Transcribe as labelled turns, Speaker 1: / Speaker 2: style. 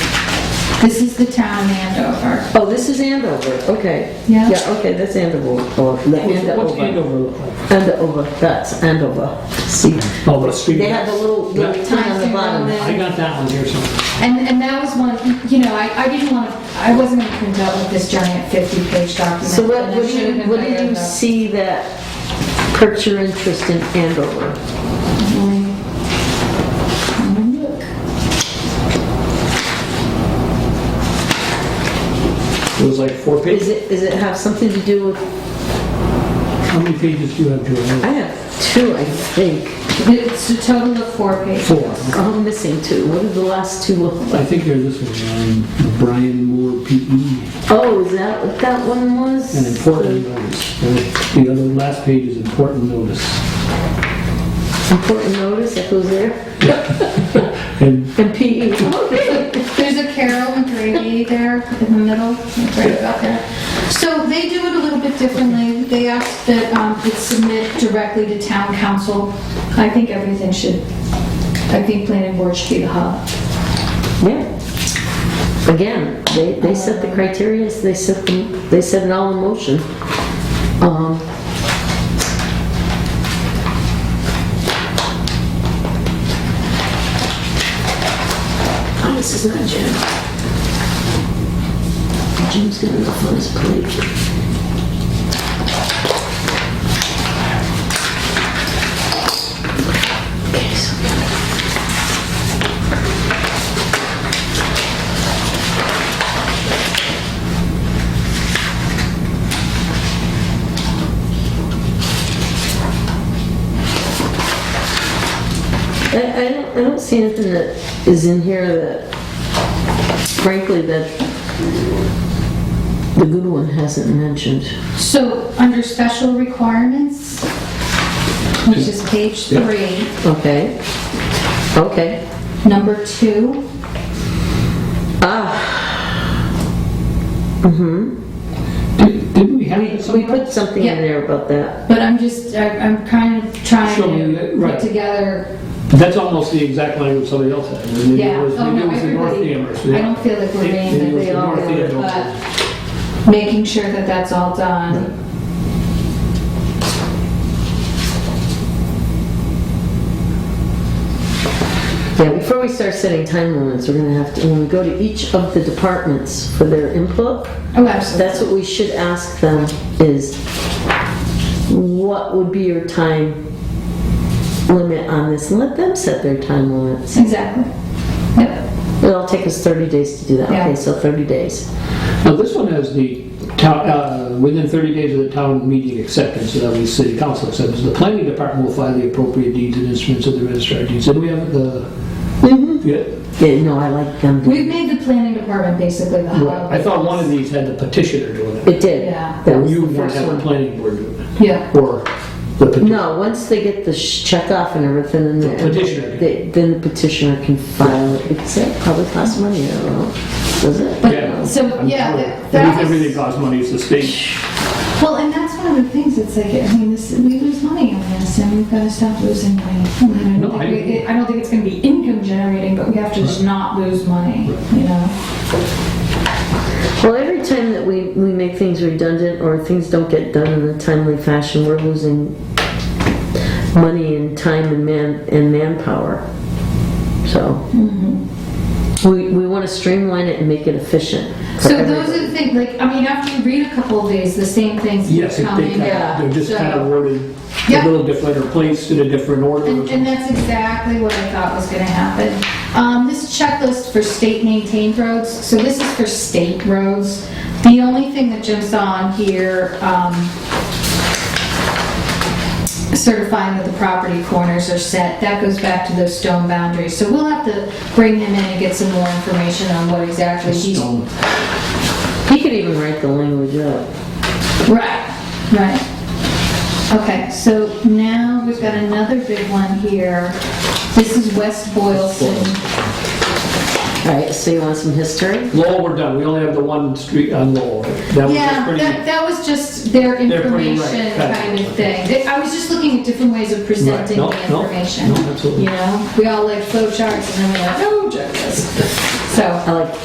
Speaker 1: This is the town Andover.
Speaker 2: Oh, this is Andover, okay.
Speaker 1: Yeah.
Speaker 2: Yeah, okay, that's Andover, Oh, or the
Speaker 3: What's
Speaker 2: Andover.
Speaker 3: Andover look like?
Speaker 2: Andover, that's Andover. See,
Speaker 3: Oh, the street.
Speaker 2: they have the little, little
Speaker 3: Yeah.
Speaker 2: town on the bottom.
Speaker 3: I got that one here somewhere.
Speaker 1: And, and that was one, you know, I, I didn't want to, I wasn't going to print out with this giant 50-page document.
Speaker 2: So what,
Speaker 1: and it
Speaker 2: what do
Speaker 1: should've
Speaker 2: you,
Speaker 1: been
Speaker 2: what do
Speaker 1: bigger,
Speaker 2: you
Speaker 1: though.
Speaker 2: see that perks your interest in Andover?
Speaker 3: It was like four
Speaker 2: Is
Speaker 3: pages.
Speaker 2: it, is it have something to do with,
Speaker 3: How many pages do you have,
Speaker 2: I
Speaker 3: Julie?
Speaker 2: have two, I think.
Speaker 1: It's a total of four pages.
Speaker 3: Four.
Speaker 2: Oh, I'm missing two. What did the last two look
Speaker 3: I
Speaker 2: like?
Speaker 3: think they're this one, um, Brian Moore, PE,
Speaker 2: Oh, is that what that one
Speaker 3: and
Speaker 2: was?
Speaker 3: important notice. The other, last page is important notice.
Speaker 2: Important notice, that goes there.
Speaker 3: And
Speaker 2: And E. PE. Okay.
Speaker 1: There's a Carol and Grady there in the middle, right about there. So they do it a little bit differently. They ask that um, it submit directly to town council. I think everything should, I think planning board should be the hub.
Speaker 2: Yeah. Again, they, they set the criteria, they set them, they set it all in motion. Um, Oh, this is not Jim. Jim's got enough on his plate. Okay, so I, I don't, I don't see anything that is in here that, frankly, that the good one hasn't mentioned.
Speaker 1: So under special requirements, which is page three,
Speaker 2: Okay. Okay.
Speaker 1: number two.
Speaker 3: Did- Didn't we have it
Speaker 2: We
Speaker 3: somewhere?
Speaker 2: put something in
Speaker 1: Yeah.
Speaker 2: there about that.
Speaker 1: But I'm just, I- I'm kind of trying
Speaker 3: Show me that,
Speaker 1: to
Speaker 3: right.
Speaker 1: put together,
Speaker 3: That's almost the exact language somebody else had. Maybe it
Speaker 1: yeah.
Speaker 3: was-
Speaker 1: Oh,
Speaker 3: Maybe it
Speaker 1: no,
Speaker 3: was the North
Speaker 1: everybody-
Speaker 3: Amherst.
Speaker 1: I don't feel like we're
Speaker 3: Maybe
Speaker 1: being
Speaker 3: it
Speaker 1: that
Speaker 3: was
Speaker 1: they
Speaker 3: the
Speaker 1: all
Speaker 3: North
Speaker 1: do it,
Speaker 3: Amherst.
Speaker 1: but making sure that that's all done.
Speaker 2: Yeah, before we start setting time limits, we're gonna have to, when we go to each of the departments for their input,
Speaker 1: Oh, absolutely.
Speaker 2: that's what we should ask them is, what would be your time limit on this? And let them set their time limits.
Speaker 1: Exactly. Yep.
Speaker 2: It'll take us 30 days to do that.
Speaker 1: Yeah.
Speaker 2: Okay, so 30 days.
Speaker 3: Now, this one has the town, uh, within 30 days of the town meeting acceptance, so that means city council acceptance, the planning department will file the appropriate deeds and instruments of the registrar of deeds. And we have the,
Speaker 1: Mm-hmm.
Speaker 3: yeah,
Speaker 2: Yeah, no, I like them.
Speaker 1: We've made the planning department basically the hub.
Speaker 3: I thought one of these had the petitioner doing it.
Speaker 2: It did.
Speaker 1: Uh, Yeah.
Speaker 2: That was
Speaker 3: You
Speaker 2: the
Speaker 3: want to
Speaker 2: first
Speaker 3: have the
Speaker 2: one.
Speaker 3: planning board doing it,
Speaker 1: Yeah.
Speaker 3: or the petitioner.
Speaker 2: No, once they get the sh- check off and everything, then the
Speaker 3: petitioner.
Speaker 2: they- Then the petitioner can file it. It's, it probably costs money, I don't know. Does it?
Speaker 3: Yeah.
Speaker 1: So,
Speaker 3: I'm
Speaker 1: yeah,
Speaker 3: sure.
Speaker 1: that-
Speaker 3: Because
Speaker 1: that was-
Speaker 3: Everything costs money, it's the state.
Speaker 1: Well, and that's one of the things, it's like, I mean, this, we lose money on this, and we've got to stop losing money. I mean, I
Speaker 3: No,
Speaker 1: don't
Speaker 3: I-
Speaker 1: think we- I don't think it's going to be income generating, but we have to just not lose money, you know?
Speaker 2: Well, every time that we, we make things redundant or things don't get done in a timely fashion, we're losing money and time and man, and manpower. So, we, we want to streamline it and make it efficient. for
Speaker 1: Mm-hmm. So those
Speaker 2: everybody.
Speaker 1: are the things, like, I mean, after you read a couple of these, the same things keep
Speaker 3: Yes, if they
Speaker 1: coming
Speaker 3: kind
Speaker 1: up,
Speaker 3: of, they're just
Speaker 1: so-
Speaker 3: kind of worded
Speaker 1: Yeah.
Speaker 3: a little different or placed in a different order.
Speaker 1: And, and that's exactly what I thought was gonna happen. Um, this checklist for state maintained roads, so this is for state roads. The only thing that jumps on here, um, certifying that the property corners are set, that goes back to those stone boundaries. So we'll have to bring him in and get some more information on what exactly he's.
Speaker 3: Stone.
Speaker 2: He could even write the language up.
Speaker 1: Right, right. Okay, so now we've got another big one here. This is West Boylston.
Speaker 2: All right, so you want some history?
Speaker 3: Lowell, we're done, we only have the one street on Lowell. That was just
Speaker 1: Yeah,
Speaker 3: pretty.
Speaker 1: that, that was just their
Speaker 3: They're pretty right,
Speaker 1: information
Speaker 3: got it.
Speaker 1: kind of thing. They- I was just looking at different ways of presenting
Speaker 3: no,
Speaker 1: the
Speaker 3: no,
Speaker 1: information.
Speaker 3: no, absolutely.
Speaker 1: You know, we all like flow charts and then we're like, oh, checklist. So.
Speaker 2: I like